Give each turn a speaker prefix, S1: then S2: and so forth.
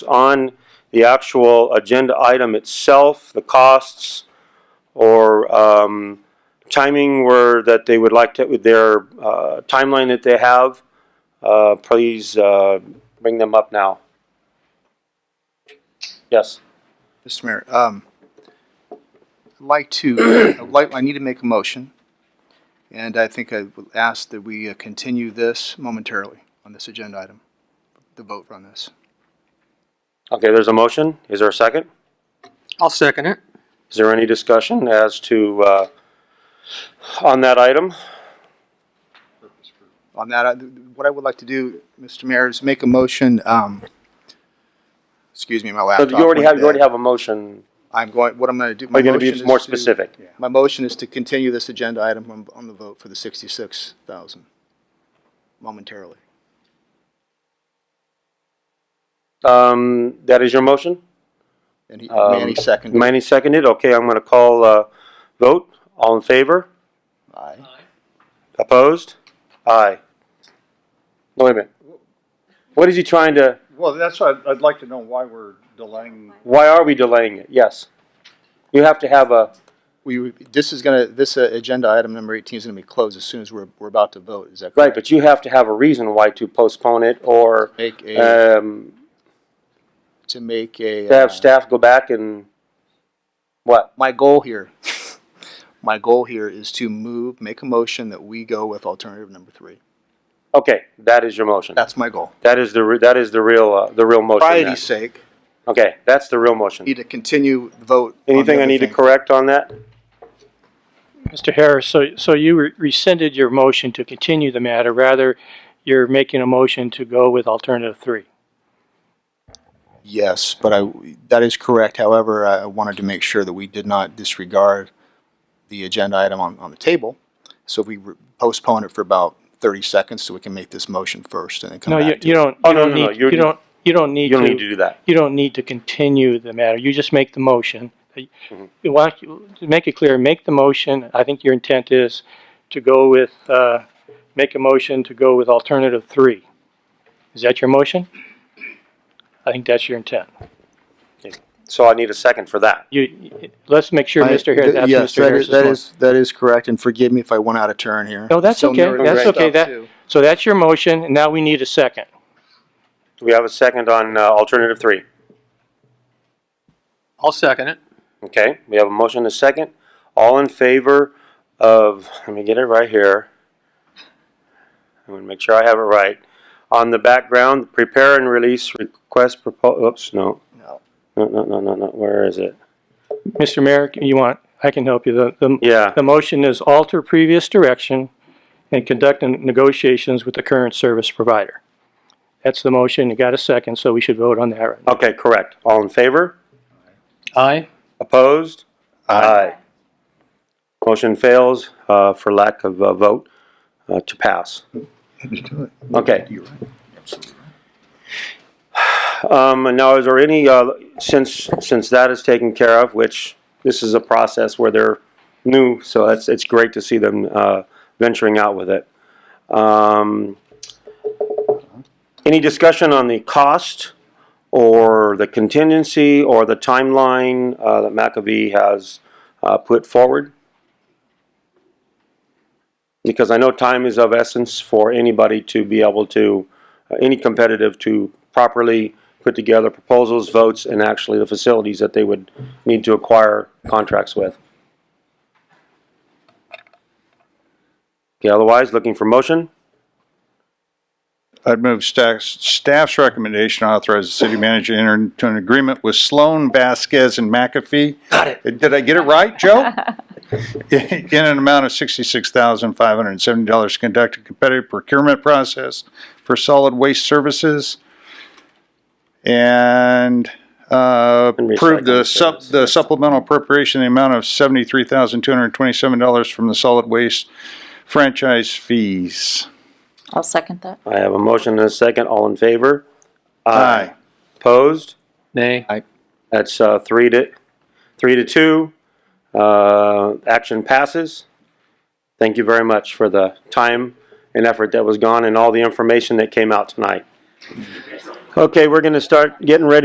S1: on the actual agenda item itself, the costs or um, timing were that they would like to, with their uh, timeline that they have, uh, please uh, bring them up now. Yes.
S2: Mr. Mayor, um, I'd like to, uh, I'd like, I need to make a motion, and I think I would ask that we uh, continue this momentarily on this agenda item, the vote on this.
S1: Okay, there's a motion. Is there a second?
S3: I'll second it.
S1: Is there any discussion as to, uh, on that item?
S2: On that, I- what I would like to do, Mr. Mayor, is make a motion, um, excuse me, my
S1: So
S2: laptop.
S1: You already
S2: went
S1: have, you already
S2: dead.
S1: have a motion.
S2: I'm going, what I'm gonna do. my
S1: Are you going to
S2: motion
S1: be
S2: is
S1: more
S2: to-
S1: specific?
S2: My motion is to continue this agenda item on, on the vote for the sixty-six thousand momentarily.
S1: Um, That is your motion?
S2: And he,
S1: Um,
S2: Manny seconded.
S1: Manny seconded. Okay, I'm going to call uh, vote. All in favor?
S2: Aye.
S1: Opposed? Aye. No, Wait a minute. What is he trying to,
S4: Well, that's why I'd, I'd like to know why we're delaying.
S1: why are we delaying it? Yes. You have to have a,
S2: We, this is gonna, this uh, agenda item number eighteen is gonna be closed as soon as we're, we're about to vote, is that
S1: right,
S2: correct?
S1: but you have to have a reason why to postpone it or
S2: Make a,
S1: um,
S2: to make a.
S1: to have
S2: uh,
S1: staff go back and, what?
S2: My goal here, my goal here is to move, make a motion that we go with alternative number three.
S1: Okay, that is your motion.
S2: That's my goal.
S1: That is the, re- that is the real, uh, the real motion. then.
S2: Variety's sake,
S1: Okay, that's the real motion.
S2: need to continue the vote. on the
S1: Anything I
S2: other
S1: need to
S2: thing.
S1: correct on that?
S5: Mr. Harris, so, so you re- rescinded your motion to continue the matter, rather you're making a motion to go with alternative three.
S2: Yes, but I, that is correct. However, I wanted to make sure that we did not disregard the agenda item on, on the table. So if we re- postpone it for about thirty seconds so we can make this motion first and then come
S5: No, you,
S2: back to
S5: you
S2: it.
S5: don't,
S1: Oh,
S5: you
S1: no,
S5: don't
S1: no, no,
S5: need,
S1: you're-
S5: you don't, you don't need
S1: You don't need to
S5: to,
S1: do that.
S5: you don't need to continue the matter. You just make the motion. You
S1: Mm-hmm.
S5: want, to make it clear, make the motion. I think your intent is to go with, uh, make a motion to go with alternative three. Is that your motion? I think that's your intent.
S1: So I need a second for that.
S5: You, let's make sure,
S2: I-
S5: Mr. Harris, that's
S2: yes,
S5: Mr.
S2: that is-
S5: Harris's
S2: That
S5: motion.
S2: is, that is correct, and forgive me if I went out of turn here.
S5: No, that's
S2: Still
S5: okay,
S2: newer
S5: that's
S2: stuff,
S5: okay, that,
S2: too.
S5: so that's your motion, and now we need a second.
S1: Do we have a second on uh, alternative three?
S3: I'll second it.
S1: Okay, we have a motion and a second. All in favor of, let me get it right here. I'm gonna make sure I have it right. On the background, prepare and release request propo, oops, no.
S2: No.
S1: No, no, no, no, no, where is it?
S5: Mr. Mayor, you want, I can help you, the, the,
S1: Yeah,
S5: the motion is alter previous direction and conduct negotiations with the current service provider. That's the motion, you got a second, so we should vote on that right now.
S1: okay, correct. All in favor?
S3: Aye.
S1: Opposed?
S2: Aye.
S1: Motion fails uh, for lack of a vote uh, to pass. Okay.
S2: You're right.
S1: Um, and now, is there any, uh, since, since that is taken care of, which this is a process where they're new, so it's, it's great to see them, uh, venturing out with it. Um, any discussion on the cost or the contingency or the timeline, uh, that McAfee has, uh, put forward? Because I know time is of essence for anybody to be able to, uh, any competitive to properly put together proposals, votes, and actually the facilities that they would need to acquire contracts with. Okay, otherwise, looking for motion?
S4: I'd move staff's, staff's recommendation authorize the city manager to enter into an agreement with Sloan, Vasquez, and McAfee. Got it. Did I get it right, Joe? In an amount of sixty-six thousand five hundred and seventy dollars to conduct a competitive procurement process for solid waste services. And, uh,
S1: And
S4: approve the
S1: recycling
S4: sup,
S1: services.
S4: the supplemental appropriation, in the amount of seventy-three thousand two hundred and twenty-seven dollars from the solid waste franchise fees.
S6: I'll second that.
S1: I have a motion and a second. All in favor?
S4: Aye.
S1: Opposed?
S3: Nay.
S1: That's uh, three to, three to two. Uh, Action passes. Thank you very much for the time and effort that was gone and all the information that came out tonight. Okay, we're going to start getting ready